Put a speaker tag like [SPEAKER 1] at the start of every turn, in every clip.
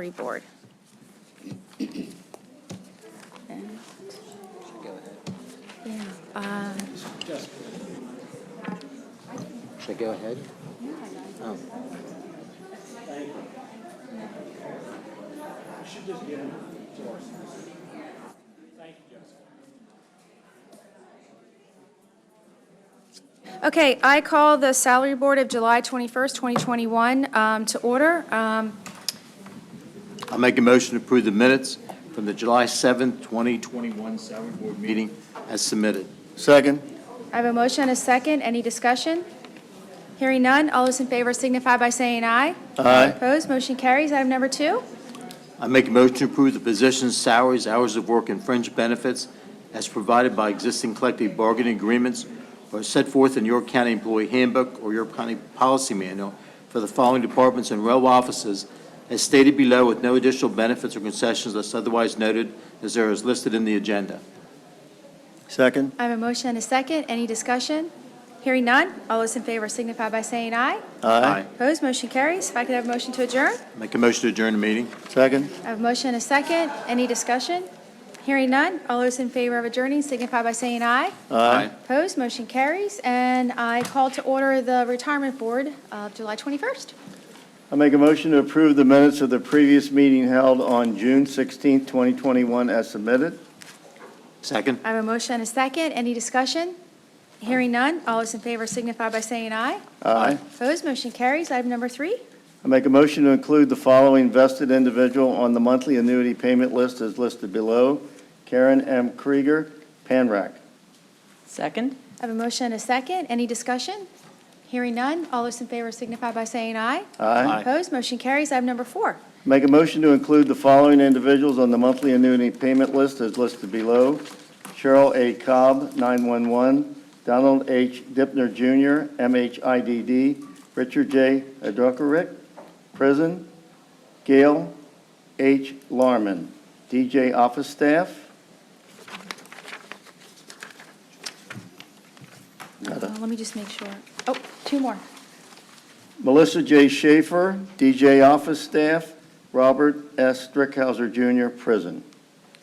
[SPEAKER 1] Advisory Board. Yeah, um,
[SPEAKER 2] Should I go ahead? Oh.
[SPEAKER 1] Okay, I call the Salary Board of July 21st, 2021 um, to order. Um,
[SPEAKER 2] I'll make a motion to approve the minutes from the July 7th, 2021 salary board meeting as submitted. Second.
[SPEAKER 1] I have a motion and a second. Any discussion? Hearing none. All those in favor signify by saying aye.
[SPEAKER 2] Aye.
[SPEAKER 1] Opposed, motion carries. Item number two.
[SPEAKER 2] I make a motion to approve the positions, salaries, hours of work, and fringe benefits as provided by existing collective bargaining agreements or set forth in York County Employee Handbook or York County Policy Manual for the following departments and rail offices as stated below with no additional benefits or concessions unless otherwise noted as there is listed in the agenda.
[SPEAKER 3] Second.
[SPEAKER 1] I have a motion and a second. Any discussion? Hearing none. All those in favor signify by saying aye.
[SPEAKER 3] Aye.
[SPEAKER 1] Opposed, motion carries. If I could have a motion to adjourn?
[SPEAKER 2] Make a motion to adjourn the meeting.
[SPEAKER 3] Second.
[SPEAKER 1] I have a motion and a second. Any discussion? Hearing none. All those in favor of adjourning signify by saying aye.
[SPEAKER 2] Aye.
[SPEAKER 1] Opposed, motion carries. And I call to order the Retirement Board of July 21st.
[SPEAKER 3] I make a motion to approve the minutes of the previous meeting held on June 16, 2021, as submitted.
[SPEAKER 2] Second.
[SPEAKER 1] I have a motion and a second. Any discussion? Hearing none. All those in favor signify by saying aye.
[SPEAKER 3] Aye.
[SPEAKER 1] Opposed, motion carries. Item number three.
[SPEAKER 3] I make a motion to include the following vested individual on the monthly annuity payment list as listed below. Karen M. Krieger, Panrak.
[SPEAKER 4] Second?
[SPEAKER 1] I have a motion and a second. Any discussion? Hearing none. All those in favor signify by saying aye.
[SPEAKER 3] Aye.
[SPEAKER 1] Opposed, motion carries. Item number four.
[SPEAKER 3] Make a motion to include the following individuals on the monthly annuity payment list as listed below. Cheryl A. Cobb, 911, Donald H. Dipner Jr., MHIDD, Richard J. Adrukerick, prison, Gail H. Larman, DJ office staff.
[SPEAKER 1] Uh, Let me just make sure. Oh, two more.
[SPEAKER 3] Melissa J. Schaefer, DJ office staff, Robert S. Strickhauser Jr., prison.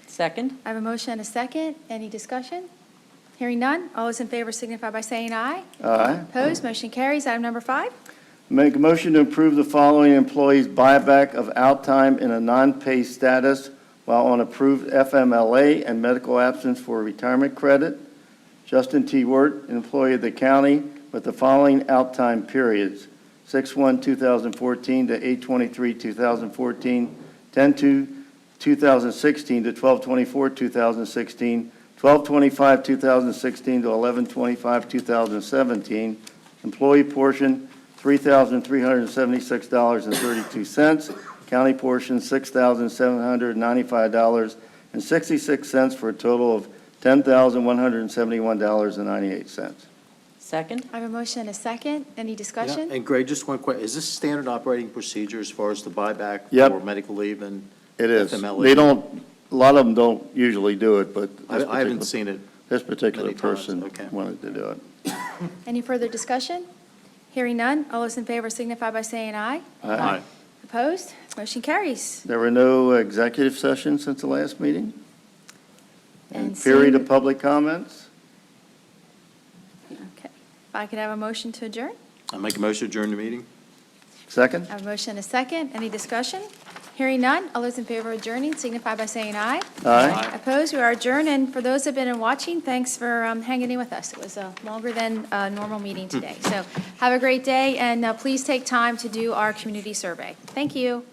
[SPEAKER 4] Second?
[SPEAKER 1] I have a motion and a second. Any discussion? Hearing none. All those in favor signify by saying aye.
[SPEAKER 3] Aye.
[SPEAKER 1] Opposed, motion carries. Item number five.
[SPEAKER 3] Make a motion to approve the following employees' buyback of out time in a non-pay status while on approved FMLA and medical absence for retirement credit. Justin T. Wirt, employee of the county, with the following out time periods: 6/1/2014 to 8/23/2014, 10/2/2016 to 12/24/2016, 12/25/2016 to 11/25/2017, employee portion $3,376.32, county portion $6,795.66 for a total of $10,171.98.
[SPEAKER 4] Second?
[SPEAKER 1] I have a motion and a second. Any discussion?
[SPEAKER 2] Yeah, And Greg, just one question, is this standard operating procedure as far as the buyback
[SPEAKER 3] Yep.
[SPEAKER 2] for medical leave? And
[SPEAKER 3] It is.
[SPEAKER 2] FMLA.
[SPEAKER 3] They don't, a lot of them don't usually do it, but
[SPEAKER 2] I
[SPEAKER 3] this
[SPEAKER 2] I haven't
[SPEAKER 3] particular,
[SPEAKER 2] seen it.
[SPEAKER 3] this particular
[SPEAKER 2] many times,
[SPEAKER 3] person
[SPEAKER 2] okay.
[SPEAKER 3] wanted to do it.
[SPEAKER 1] Any further discussion? Hearing none. All those in favor signify by saying aye.
[SPEAKER 2] Aye.
[SPEAKER 1] Opposed? Motion carries.
[SPEAKER 3] There were no executive sessions since the last meeting? And
[SPEAKER 1] seeing-
[SPEAKER 3] period of public comments?
[SPEAKER 1] Okay. If I could have a motion to adjourn?
[SPEAKER 2] I make a motion to adjourn the meeting?
[SPEAKER 3] Second?
[SPEAKER 1] I have a motion and a second. Any discussion? Hearing none. All those in favor of adjourning signify by saying aye.
[SPEAKER 3] Aye.
[SPEAKER 1] Opposed, we are adjourned, and for those that have been in watching, thanks for um, hanging in with us. It was a longer than uh, normal meeting today. So have a great day, and uh, please take time to do our community survey. Thank you.